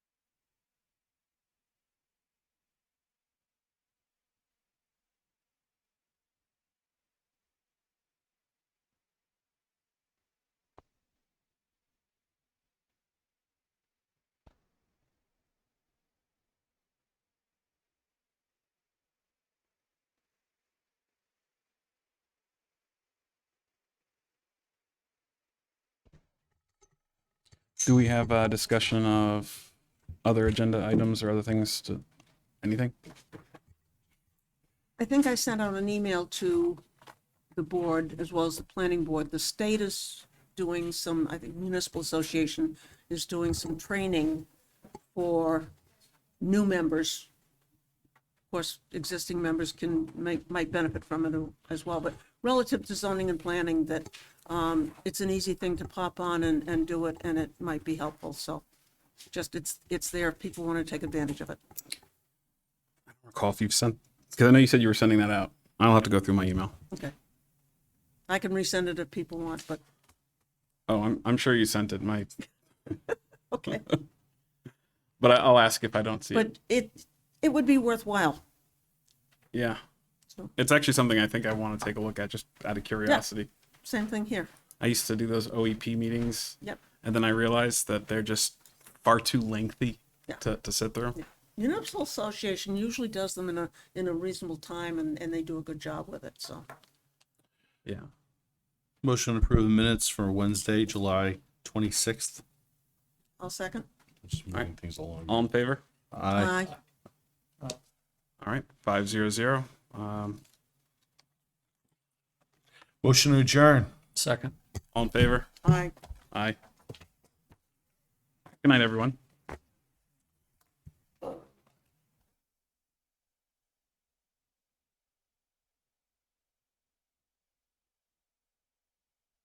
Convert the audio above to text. Do we have a discussion of other agenda items or other things to, anything? I think I sent out an email to the board as well as the planning board. The state is doing some, I think municipal association is doing some training for new members. Of course, existing members can make, might benefit from it as well, but relative to zoning and planning that um, it's an easy thing to pop on and, and do it and it might be helpful. So just it's, it's there. if People want to take advantage of it. Recall if you've sent, because I know you said you were sending that out. I'll have to go through my email. Okay. I can resend it if people want, but Oh, I'm, I'm sure you sent it, my, Okay, but I- I'll ask if I don't see it. but it, it would be worthwhile. Yeah. So- It's actually something I think I want to take a look at just out of curiosity. Same thing here. I used to do those OEP meetings. Yep. And then I realized that they're just far too lengthy Yeah. to, to sit through. Municipal Association usually does them in a, in a reasonable time and, and they do a good job with it, so. Yeah. Motion to approve the minutes for Wednesday, July twenty-sixth. I'll second. Just moving things along. All in favor? Aye. All right. Five zero zero. Um, Motion to adjourn. all in favor? Aye. Aye. Good night, everyone.